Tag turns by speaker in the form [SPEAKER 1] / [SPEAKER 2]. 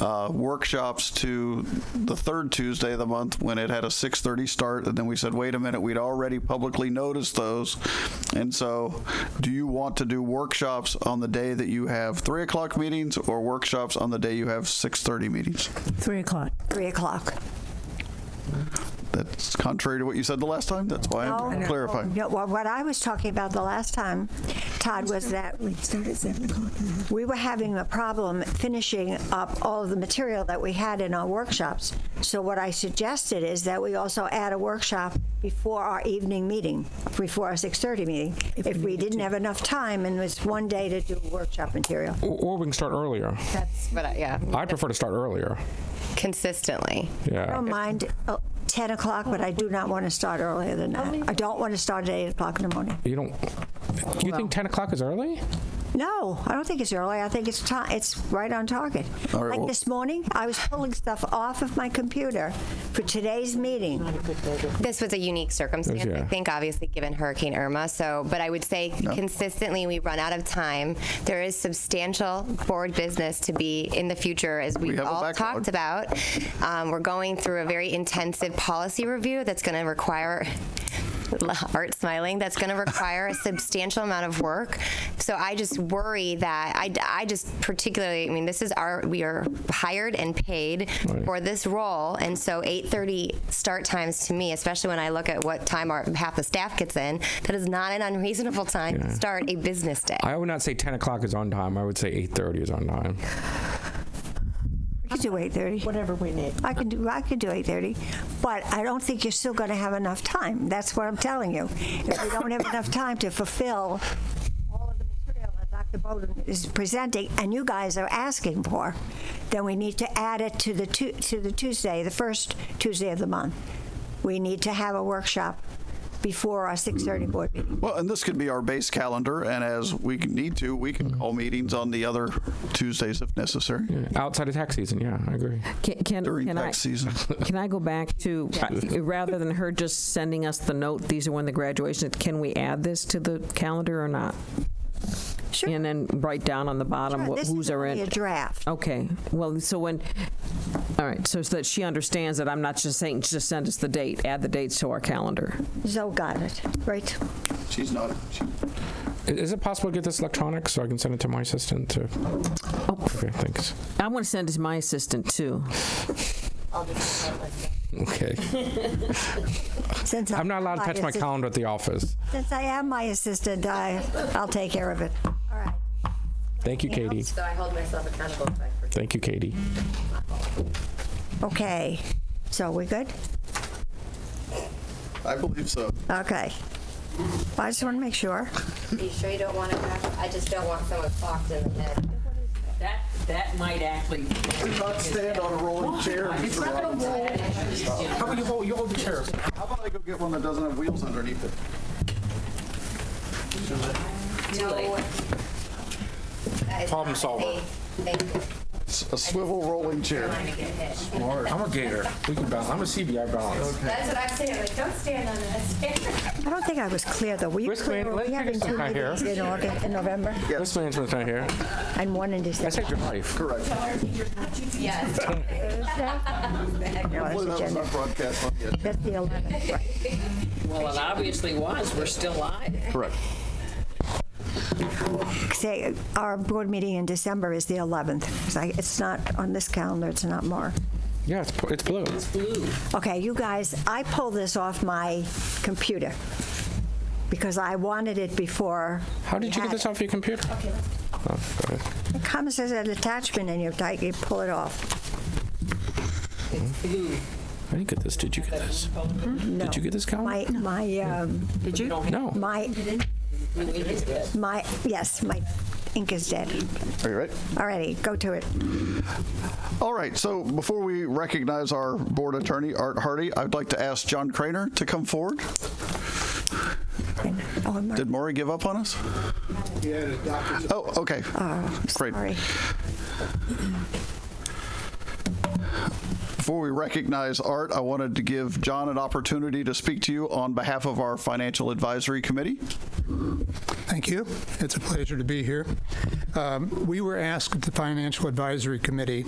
[SPEAKER 1] uh, workshops to the third Tuesday of the month when it had a 6:30 start, and then we said, wait a minute, we'd already publicly noticed those, and so do you want to do workshops on the day that you have three o'clock meetings, or workshops on the day you have 6:30 meetings?
[SPEAKER 2] Three o'clock.
[SPEAKER 3] 3 o'clock.
[SPEAKER 1] That's contrary to what you said the last time. That's why I'm
[SPEAKER 3] Oh, No.
[SPEAKER 1] clarifying.
[SPEAKER 3] No, well, what I was talking about the last time, Todd, was that
[SPEAKER 2] We start at seven o'clock.
[SPEAKER 3] we were having a problem finishing up all of the material that we had in our workshops. So what I suggested is that we also add a workshop before our evening meeting, before our 6:30 meeting, if we didn't have enough time and it was one day to do workshop material.
[SPEAKER 4] Or, or we can start earlier.
[SPEAKER 5] That's what I, uh, yeah.
[SPEAKER 4] I prefer to start earlier.
[SPEAKER 5] Consistently.
[SPEAKER 3] I
[SPEAKER 4] Yeah.
[SPEAKER 3] don't mind uh, 10 o'clock, but I do not want to start earlier than that. I don't want to start at 8 o'clock in the morning.
[SPEAKER 4] You don't. You think 10 o'clock is early?
[SPEAKER 3] No, I don't think it's early. I think it's ti it's right on target.
[SPEAKER 1] All right,
[SPEAKER 3] like
[SPEAKER 1] well-
[SPEAKER 3] this morning, I was pulling stuff off of my computer for today's meeting.
[SPEAKER 5] This was a unique circumstance, I
[SPEAKER 4] Yeah.
[SPEAKER 5] think, obviously, given Hurricane Irma. So, but I would say consistently we run out of time. There is substantial board business to be in the future, as we
[SPEAKER 1] have a
[SPEAKER 5] all
[SPEAKER 1] backlog.
[SPEAKER 5] talked about. Um, we're going through a very intensive policy review that's going to require. Art smiling. That's going to require a substantial amount of work. So I just worry that I, I just particularly. I mean, this is our we are hired and paid
[SPEAKER 4] Right.
[SPEAKER 5] for this role, and so 8:30 start times to me, especially when I look at what time our half the staff gets in, that is not an unreasonable time to start a business day.
[SPEAKER 4] I would not say 10 o'clock is on time. I would say 8:30 is on time.
[SPEAKER 3] I could do 8:30.
[SPEAKER 6] Whatever we need.
[SPEAKER 3] I can do I could do 8:30, but I don't think you're still going to have enough time. That's what I'm telling you. If we don't have enough time to fulfill all of the material that Dr. Bowden is presenting and you guys are asking for, then we need to add it to the tu- to the Tuesday, the first Tuesday of the month. We need to have a workshop before our 6:30 board meeting.
[SPEAKER 1] Well, and this could be our base calendar, and as we need to, we can call meetings on the other Tuesdays if necessary
[SPEAKER 4] Outside of tax season, yeah, I agree.
[SPEAKER 7] Can, can,
[SPEAKER 1] during
[SPEAKER 7] can I,
[SPEAKER 1] tax season.
[SPEAKER 7] can I go back to, uh, rather than her just sending us the note, these are when the graduation, can we add this to the calendar or not?
[SPEAKER 3] Sure.
[SPEAKER 7] And then write down on the bottom
[SPEAKER 3] Sure,
[SPEAKER 7] what-
[SPEAKER 3] this
[SPEAKER 7] who's
[SPEAKER 3] is
[SPEAKER 7] are
[SPEAKER 3] only
[SPEAKER 7] in.
[SPEAKER 3] a draft.
[SPEAKER 7] Okay, well, so when, all right, so so that she understands that I'm not just saying, just send us the date, add the dates to our calendar.
[SPEAKER 3] Zoe got it, right?
[SPEAKER 1] She's not. She,
[SPEAKER 4] I- Is it possible to get this electronic so I can send it to my assistant? To, Okay, thanks.
[SPEAKER 7] I want to send it to my assistant, too.
[SPEAKER 4] Okay.
[SPEAKER 3] Since
[SPEAKER 4] I'm not allowed to
[SPEAKER 3] am
[SPEAKER 4] touch my
[SPEAKER 3] assist-
[SPEAKER 4] calendar at the office.
[SPEAKER 3] Since I am my assistant, I, I'll take care of it. All right.
[SPEAKER 4] Thank you, Katie.
[SPEAKER 5] So I hold myself accountable if I forget.
[SPEAKER 4] Thank you, Katie.
[SPEAKER 3] Okay. So we good?
[SPEAKER 1] I believe so.
[SPEAKER 3] Okay. I just want to make sure.
[SPEAKER 5] Are you sure you don't want to have, I just don't want someone clocked in the head.
[SPEAKER 8] That, that might actually.
[SPEAKER 1] Not stand on a rolling chair. Mr. Robbins.
[SPEAKER 4] How about you hold, you hold the chair?
[SPEAKER 1] How about I go get one that doesn't have wheels underneath it?
[SPEAKER 4] Problem solver.
[SPEAKER 5] Thank you.
[SPEAKER 1] It's a swivel rolling chair.
[SPEAKER 5] I get hit.
[SPEAKER 4] I'm a gator. We can balance. I'm a CBI balance.
[SPEAKER 5] That's what I'm saying, like, don't stand on this.
[SPEAKER 3] I don't think I was clear, though. Were you
[SPEAKER 4] Risk
[SPEAKER 3] clear?
[SPEAKER 4] man-
[SPEAKER 3] Were we
[SPEAKER 4] let's
[SPEAKER 3] having
[SPEAKER 4] take a
[SPEAKER 3] two
[SPEAKER 4] second here.
[SPEAKER 3] meetings in August, in November,
[SPEAKER 4] Yes. management's not here.
[SPEAKER 3] and one in
[SPEAKER 4] I
[SPEAKER 3] December?
[SPEAKER 4] saved your life.
[SPEAKER 1] Correct.
[SPEAKER 5] Yes.
[SPEAKER 3] No,
[SPEAKER 1] Well, that
[SPEAKER 3] that's
[SPEAKER 1] was
[SPEAKER 3] agenda.
[SPEAKER 1] not broadcast on yet.
[SPEAKER 3] That's the 11th, right?
[SPEAKER 8] Well, it obviously was. We're still live.
[SPEAKER 1] Correct.
[SPEAKER 3] Say, our board meeting in December is the 11th. It's like- It's not on this calendar, it's not more.
[SPEAKER 4] Yeah, it's, it's blue.
[SPEAKER 3] Okay, you guys, I pulled this off my computer because I wanted it before.
[SPEAKER 4] How
[SPEAKER 3] we
[SPEAKER 4] did you get
[SPEAKER 3] had
[SPEAKER 4] this off your computer? Okay. Oh, go ahead.
[SPEAKER 3] it. It comes as an attachment and you type, you pull it off.
[SPEAKER 4] I didn't get this. Did you get this? Did you get this, Colin?
[SPEAKER 3] My, my, um,
[SPEAKER 4] no.
[SPEAKER 3] my, my, yes, my ink is dead.
[SPEAKER 1] Are you right?
[SPEAKER 3] Alrighty, go to it.
[SPEAKER 1] All right. So before we recognize our board attorney, Art Hardy, I'd like to ask John Craner to come forward.
[SPEAKER 3] Oh, I'm
[SPEAKER 1] Did Maury give up on us? Oh, okay. Great.
[SPEAKER 3] sorry.
[SPEAKER 1] Before we recognize Art, I wanted to give John an opportunity to speak to you on behalf of our Financial Advisory Committee.
[SPEAKER 9] Thank you. It's a pleasure to be here. Um, We were asked at the Financial Advisory Committee